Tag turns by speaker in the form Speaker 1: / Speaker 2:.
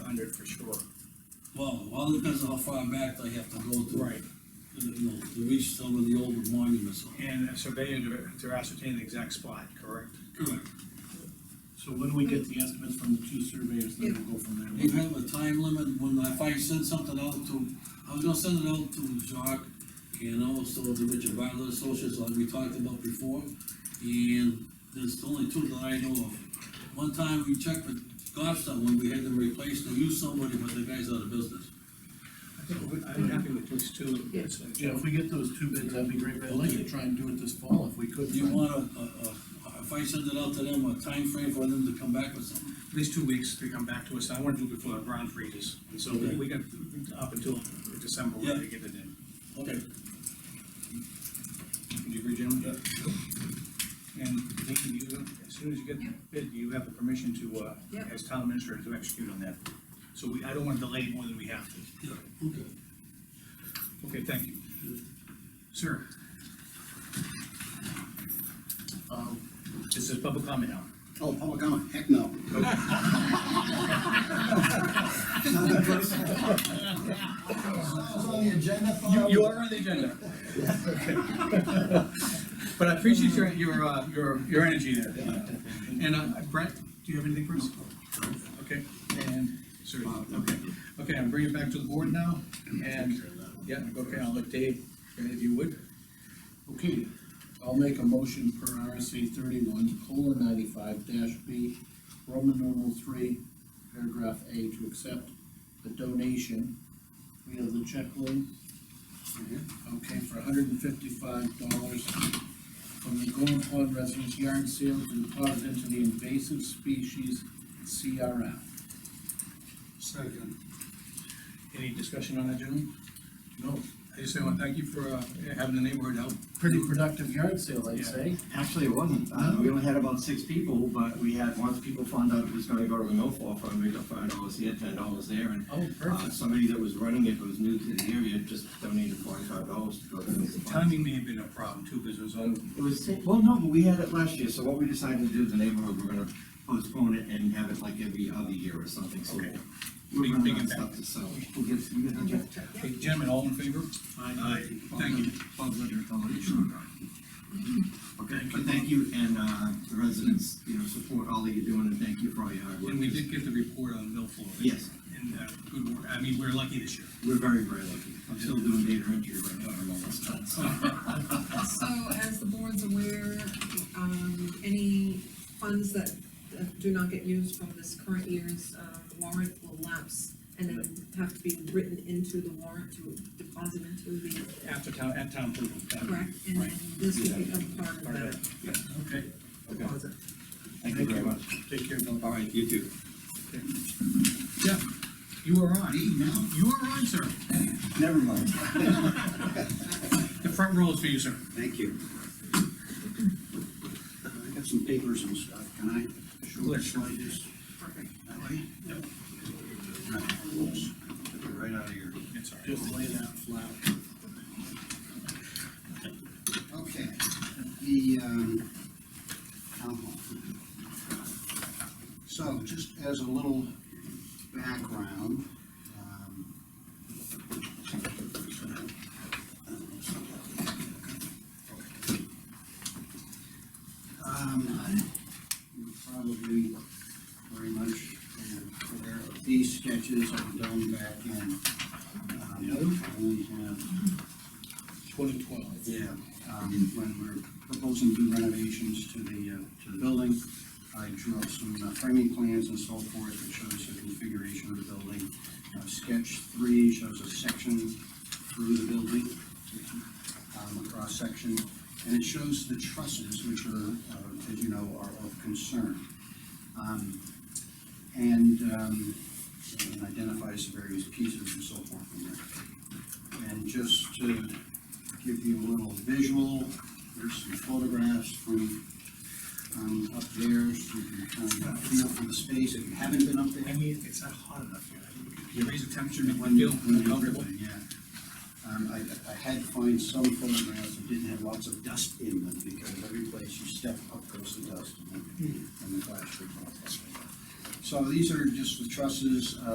Speaker 1: hundred for sure.
Speaker 2: Well, all depends on how far back they have to go to. To, you know, to reach some of the older monuments.
Speaker 1: And a surveyor to- to ascertain the exact spot, correct?
Speaker 2: Correct.
Speaker 3: So when we get the estimates from the two surveyors, then we'll go from
Speaker 2: You
Speaker 3: there.
Speaker 2: have a time limit, when I- if I send something out to, I was gonna send it out to Jacques, and also to Richard Bartlett Associates, like we talked about before, and there's only two that I know of. One time we checked with Goffstown, when we had them replaced, they used somebody, but the guy's out of business.
Speaker 1: I think we- I'm happy with those two. It's-
Speaker 3: Yeah, if we get those two bids, that'd be great, but I'd like to try and do it this fall if we could.
Speaker 2: Do you want a, a, a- if I send it out to them, a time frame for them to come back with something?
Speaker 1: At least two weeks to come back to us, I wanna do it before the ground freezes, and so we we got up until December, we're gonna get it in.
Speaker 2: Okay.
Speaker 1: Do you agree, gentlemen? And Dean, you, as soon as you get the bid, you have the permission to, uh,
Speaker 4: Yeah.
Speaker 1: as town administrator, to execute on that. So we, I don't wanna delay more than we have to.
Speaker 2: Yeah, okay.
Speaker 1: Okay, thank you. Sir,
Speaker 3: Um,
Speaker 1: this is public comment now.
Speaker 5: Oh, public comment, heck no. Sounds on the agenda,
Speaker 1: You,
Speaker 5: Bob.
Speaker 1: you are on the agenda. But I appreciate your, your, uh, your, your energy there. And uh, Brett, do you have anything for us? Okay, and, sorry,
Speaker 2: Uh,
Speaker 1: okay, okay, I'm bringing it back to the board now, and, yeah, okay, I'll let Dave, if you would.
Speaker 3: Okay, I'll make a motion per RSA thirty-one, colon ninety-five dash B, Roman numeral three, paragraph A, to accept the donation. We have the check link, okay, for hundred and fifty-five dollars from the Golden Pond Residents Yard Sale to deposit into the invasive species CRF.
Speaker 5: Second.
Speaker 1: Any discussion on that, gentlemen?
Speaker 3: No,
Speaker 1: I just want to thank you for, uh, having the neighborhood help.
Speaker 3: pretty productive yard sale, I'd
Speaker 1: Yeah.
Speaker 3: say.
Speaker 6: Actually, it wasn't. Uh, we only had about six people, but we had, once people found out it was gonna go to the milfoil fund, we got five dollars here, ten dollars there, and
Speaker 3: Oh,
Speaker 6: uh,
Speaker 3: perfect.
Speaker 6: somebody that was running it, who was new to the area, just donated forty-five dollars to go to the
Speaker 1: The
Speaker 6: milfoil fund.
Speaker 1: Timing may have been a problem too, because it was on,
Speaker 6: It was, well, no, but we had it last year, so what we decided to do as a neighborhood, we're gonna postpone it and have it like every other year or something, so.
Speaker 1: Okay.
Speaker 6: We're
Speaker 1: Big- big
Speaker 6: running out of
Speaker 1: impact.
Speaker 6: stuff to sell. We'll get, you get the
Speaker 4: I'm
Speaker 6: check.
Speaker 4: gonna check, yeah.
Speaker 1: Hey, gentlemen, all in favor? Aye. Thank you.
Speaker 6: Bob Ledger, Foundation. Okay, but thank you, and, uh, the residents, you know, support all that you're doing, and thank you for all your hard work.
Speaker 1: And we did get the report on Milfoil.
Speaker 6: Yes.
Speaker 1: And, uh, good work, I mean, we're lucky this year.
Speaker 6: We're very, very lucky. I'm still doing data entry right now, I'm almost done, so.
Speaker 4: So as the board's aware, um, any funds that uh, do not get used from this current year's, uh, warrant will lapse and then have to be written into the warrant to deposit into the,
Speaker 1: After town, at town approval.
Speaker 4: correct? And then this will become part of
Speaker 1: Part
Speaker 4: that
Speaker 1: of that. Okay,
Speaker 6: Okay,
Speaker 4: deposit.
Speaker 6: thank you very much.
Speaker 1: take care, Bill.
Speaker 6: All right, you too.
Speaker 1: Jeff, you are on.
Speaker 5: Me, now?
Speaker 1: You are on, sir.
Speaker 5: Never mind,
Speaker 1: The front row is for you, sir.
Speaker 5: thank you. I got some papers and stuff, can I show the slide this? That way? Yep. Right out of here.
Speaker 1: It's all right.
Speaker 3: Just lay that flat.
Speaker 5: Okay, the, um, town hall. So, just as a little background, um. Um, you're probably very much aware of these sketches I've done back in, uh, we have
Speaker 3: Twenty twelve.
Speaker 5: yeah, um, when we're proposing new renovations to the, uh, to the building, I drew up some uh, framing plans and so forth that shows the configuration of the building. Uh, Sketch three shows a section through the building, um, a cross section, and it shows the trusses, which are, uh, as you know, are of concern. Um, And, um, and identifies the various pieces and so forth from there. And just to give you a little visual. There's some photographs from, um, up there, so you can kind of get a feel for the space, if you haven't been up
Speaker 1: I
Speaker 5: there.
Speaker 1: mean, it's not hot enough here. You raise the temperature, make
Speaker 5: When
Speaker 1: me
Speaker 5: you,
Speaker 1: feel
Speaker 5: when you
Speaker 1: comfortable.
Speaker 5: yeah. Um, I, I had to find some photographs that didn't have lots of dust in them, because every place you step up goes
Speaker 1: Hmm.
Speaker 5: the dust, and the- and the glass breaks off. So these are just the trusses, uh,